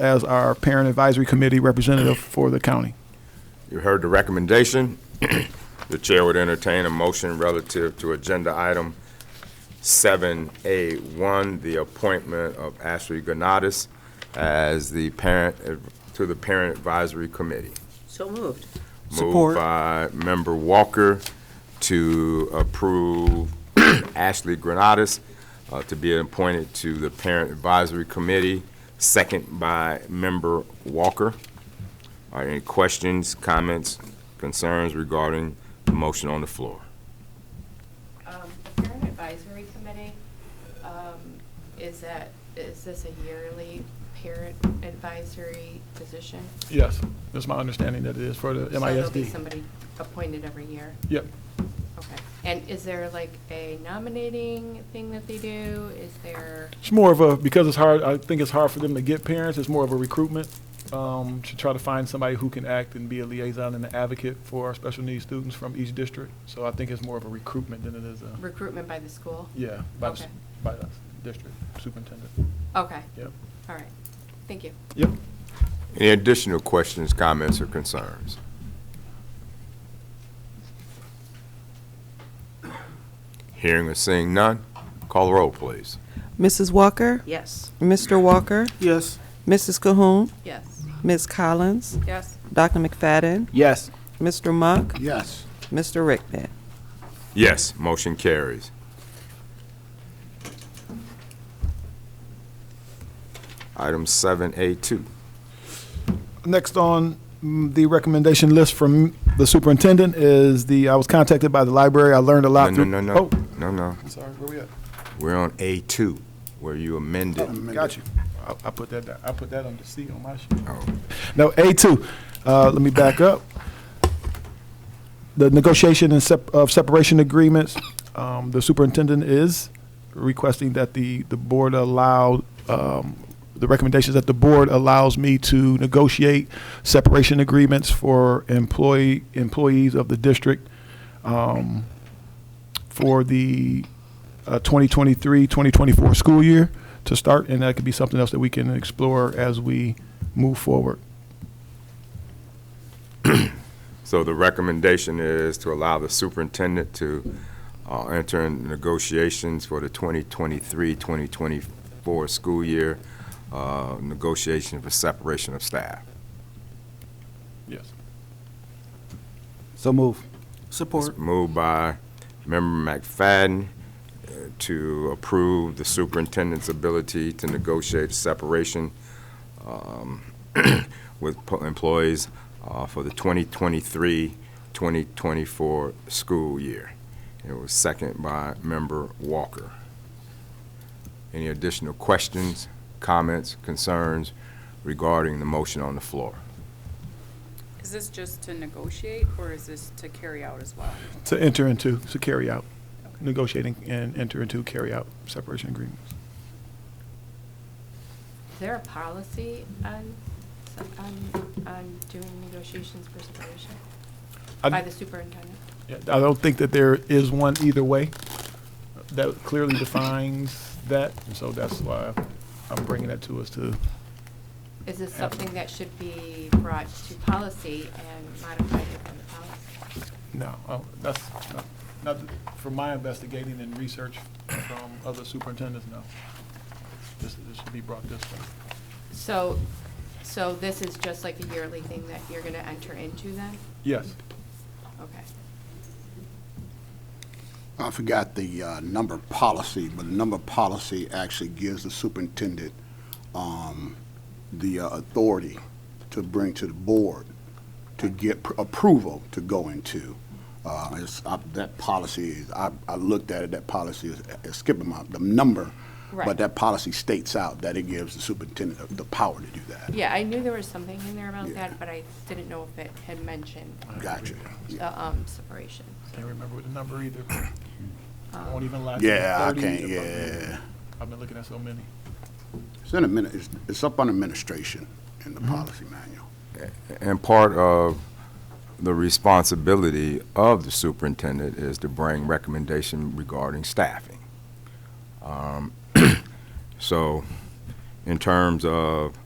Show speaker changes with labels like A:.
A: as our parent advisory committee representative for the county.
B: You heard the recommendation. The chair would entertain a motion relative to agenda item 7A1, the appointment of Ashley Gonatas as the parent, to the Parent Advisory Committee.
C: So moved.
B: Moved by Member Walker to approve Ashley Granatas uh, to be appointed to the Parent Advisory Committee, second by Member Walker. Are any questions, comments, concerns regarding the motion on the floor?
D: Um, the Parent Advisory Committee, um, is that, is this a yearly parent advisory position?
A: Yes, that's my understanding that it is for the
D: So there'll be
A: MISD.
D: somebody appointed every year?
A: Yep.
D: Okay. And is there like a nominating thing that they do? Is there,
A: It's more of a, because it's hard, I think it's hard for them to get parents, it's more of a recruitment, um, to try to find somebody who can act and be a liaison and an advocate for our special needs students from each district. So I think it's more of a recruitment than it is a,
D: recruitment by the school?
A: yeah, by, the s-
D: Okay.
A: by the district superintendent.
D: Okay,
A: Yep.
D: all right. Thank you.
A: Yep.
B: Any additional questions, comments, or concerns? Hearing or seeing none, call the roll, please.
E: Mrs. Walker,
C: Yes.
E: Mr. Walker,
F: Yes.
E: Mrs. Cahoon,
D: Yes.
E: Ms. Collins,
D: Yes.
E: Dr. McFadden,
F: Yes.
E: Mr. Monk,
F: Yes.
E: Mr. Rickman.
B: Yes, motion carries. Item seven A two.
A: Next on mm, the recommendation list from the superintendent is the, I was contacted by the library, I learned a
B: No,
A: lot.
B: no,
A: through-
B: no, no,
A: Oh,
B: no, no.
A: sorry, where we at?
B: We're on A two, where you amended.
A: Got you. I, I put that, down- I put that under C on my sheet.
B: Oh.
A: No, A2, uh, let me back up. The negotiation and sep- of separation agreements, um, the superintendent is requesting that the, the board allow, um, the recommendations that the board allows me to negotiate separation agreements for employee, employees of the district, um, for the, uh, 2023, 2024 school year to start, and that could be something else that we can explore as we move forward.
B: So the recommendation is to allow the superintendent to uh, enter in negotiations for the 2023-2024 school year, uh, negotiation for separation of staff.
A: Yes.
F: So move. Support.
B: It's moved by Member McFadden uh, to approve the superintendent's ability to negotiate separation um, with po- employees uh, for the 2023-2024 school year. It was second by Member Walker. Any additional questions, comments, concerns regarding the motion on the floor?
G: Is this just to negotiate, or is this to carry out as well?
A: To enter into, to carry out, negotiating and enter into carry out separation agreements.
D: Is there a policy on, on, on doing negotiations for separation
A: I-
D: by the superintendent?
A: Yeah, I don't think that there is one either way that clearly defines that, and so that's why I'm bringing that to us to,
D: Is this something that should be brought to policy and modified within the policy?
A: no, oh, that's not, not, from my investigating and research from other superintendents, no. This, this should be brought this way.
D: So, so this is just like a yearly thing that you're gonna enter into then?
A: Yes,
D: Okay.
H: I forgot the uh, number policy, but the number policy actually gives the superintendent um, the uh, authority to bring to the board to get pr- approval to go into. Uh, it's- I- That policy, is- I I looked at it, that policy is is skipping my, the number.
D: Right.
H: But that policy states out that it gives the superintendent the- the power to do that.
D: Yeah, I knew there was something in there about
H: Yeah.
D: that, but I didn't know if it had mentioned,
H: Gotcha.
D: the, um, separation.
A: can't remember what the number either. I won't even lie. to you,
H: Yeah, I
A: 30
H: can't,
A: if I'm-
H: yeah.
A: I've been looking at so many.
H: It's in a minute, it's- it's up on administration in the policy manual.
B: And part of the responsibility of the superintendent is to bring recommendation regarding staffing. Um, So in terms of